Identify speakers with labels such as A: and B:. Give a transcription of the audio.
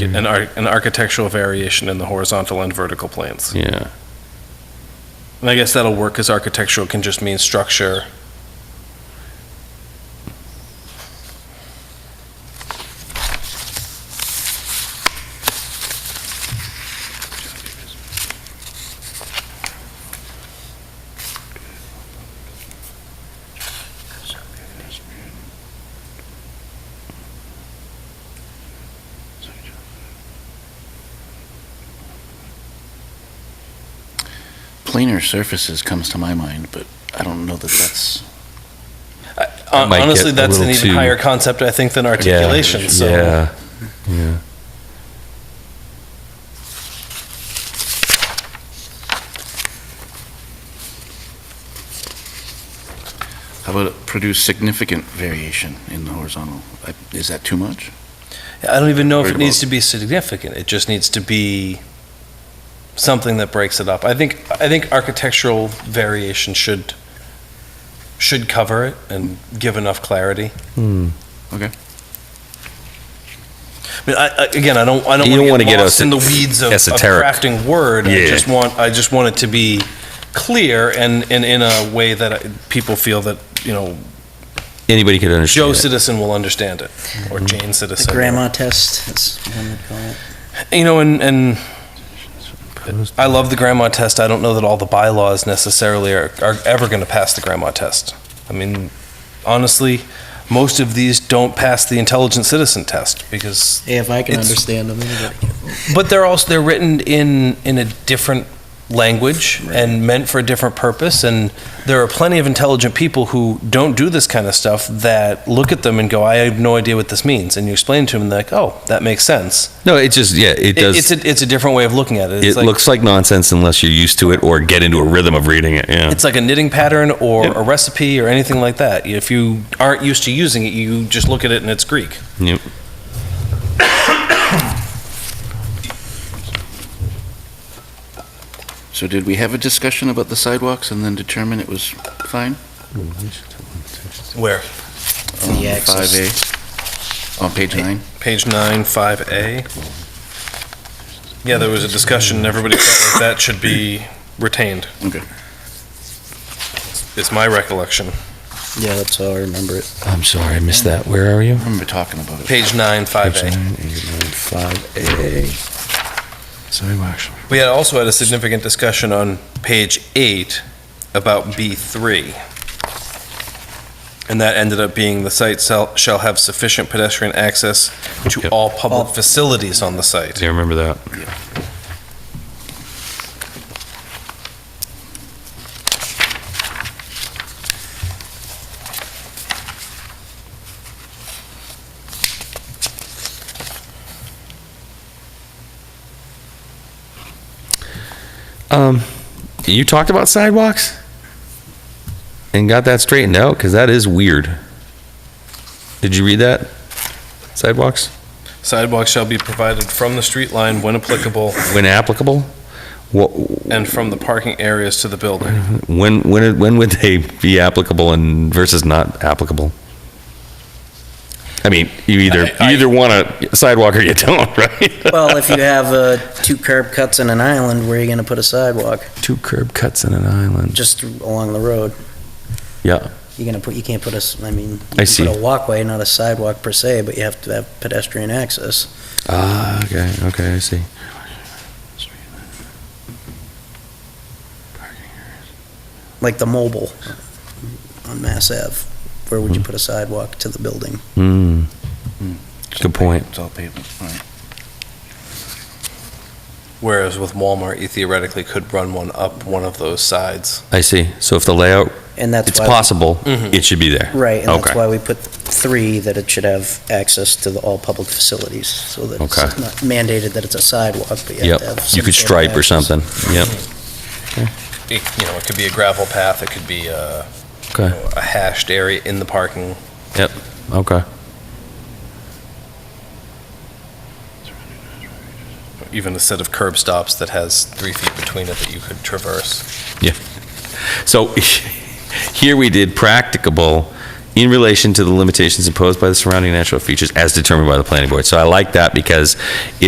A: Mm-hmm.
B: an, ar- an architectural variation in the horizontal and vertical planes.
A: Yeah,
B: And I guess that'll work because architectural can just mean structure.
C: Planar surfaces comes to my mind, but I don't know that that's.
B: Hon-
A: might get
B: Uh, Honestly,
A: a
B: that's an
A: little
B: even
A: too-
B: higher concept, I think, than articulation. So
A: yeah, yeah.
C: How about it produce significant variation in the horizontal? I- Is that too much?
B: I don't even know if it
C: Very
B: needs to be significant. It just needs to be something that breaks it up. I think I think architectural variation should should cover it and give enough clarity.
A: Hmm.
B: I mean, I, I, again, I don't, I don't
A: You don't
B: want
A: wanna
B: to get
A: get
B: lost
A: es-
B: in the weeds of, of
A: esoteric.
B: crafting word. I
A: Yeah.
B: just want, I just want it to be clear and, and in a way that I- people feel that, you know,
A: Anybody could understand.
B: Joe
A: it. Mm-hmm.
B: Citizen will understand it, or Jane
D: The
B: Citizen.
D: grandma test, that's what I would call it.
B: You know, and, and I love the grandma test. I don't know that all the bylaws necessarily are, are ever going to pass the grandma test. I mean, honestly, most of these don't pass the intelligent citizen test because
D: Hey, if I can
B: It's-
D: understand them, anybody can.
B: But they're also they're written in in a different language and meant for a different purpose. And there are plenty of intelligent people who don't do this kind of stuff that look at them and go, "I have no idea what this means." And you explain to them, like, "Oh, that makes sense."
A: No, it just yeah,
B: It,
A: it does.
B: it's a it's a different way of looking at it. It's
A: it looks like nonsense unless you're used to it or get into a rhythm of reading it. Yeah.
B: It's like a knitting pattern or
A: Yep.
B: a recipe or anything like that. If you aren't used to using it, you just look at it and it's Greek.
A: Yep.
C: So did we have a discussion about the sidewalks and then determine it was fine?
B: Where?
D: The axis.
C: 5A, Um, on page nine?
B: Page nine, five A. Yeah, there was a discussion, and everybody felt like that should be retained,
C: Okay.
B: is my recollection.
D: Yeah, that's how I remember it.
A: I'm sorry, I missed that. Where are you?
C: I remember talking about it.
B: Page nine, five A.
A: Five A.
C: Sidewalks.
B: We had also had a significant discussion on page eight about B three. And that ended up being the site shall, shall have sufficient pedestrian access to
A: Yep.
B: all public facilities on the site.
A: Do you remember that? Um, you talked about sidewalks and got that straightened out because that is weird. Did you read that? Sidewalks?
B: Sidewalks shall be provided from the street line when applicable
A: when applicable? What,
B: and from the parking areas to the building.
A: when, when, when would they be applicable and versus not applicable? I mean, you either, you
B: I- I-
A: either want a sidewalk or you don't, right?
D: Well, if you have uh, two curb cuts in an island, where are you going to put a sidewalk?
A: Two curb cuts in an island.
D: Just along the road.
A: Yeah,
D: You're going to put, you can't put a, s- I mean, you
A: I
D: can
A: see.
D: put a walkway, not a sidewalk per se, but you have to have pedestrian access.
A: ah, okay, okay, I see.
D: like the mobile on Mass Ave, where would you put a sidewalk to the building?
A: Hmm, Good point.
C: It's all pavement, all right.
B: Whereas with Walmart, you theoretically could run one up one of those sides.
A: I see. So if the layout,
D: And that's
A: it's
D: why-
A: possible,
B: Mhm.
A: it should be there.
D: Mm-hmm. Right, and that's
A: Okay.
D: why we put three, that it should have access to the, all public facilities, so that it's
A: Okay.
D: not mandated that it's a sidewalk, but you have
A: Yep,
D: to have.
A: you
D: some
A: could
D: sort of
A: stripe or
D: access.
A: something, yep,
B: It, you know, it could be a gravel path, it could be a, you
A: okay,
B: know, a hashed area in the parking.
A: okay.
B: Even a set of curb stops that has three feet between it that you could traverse.
A: So here we did practicable in relation to the limitations imposed by the surrounding natural features as determined by the planning board. So I like that because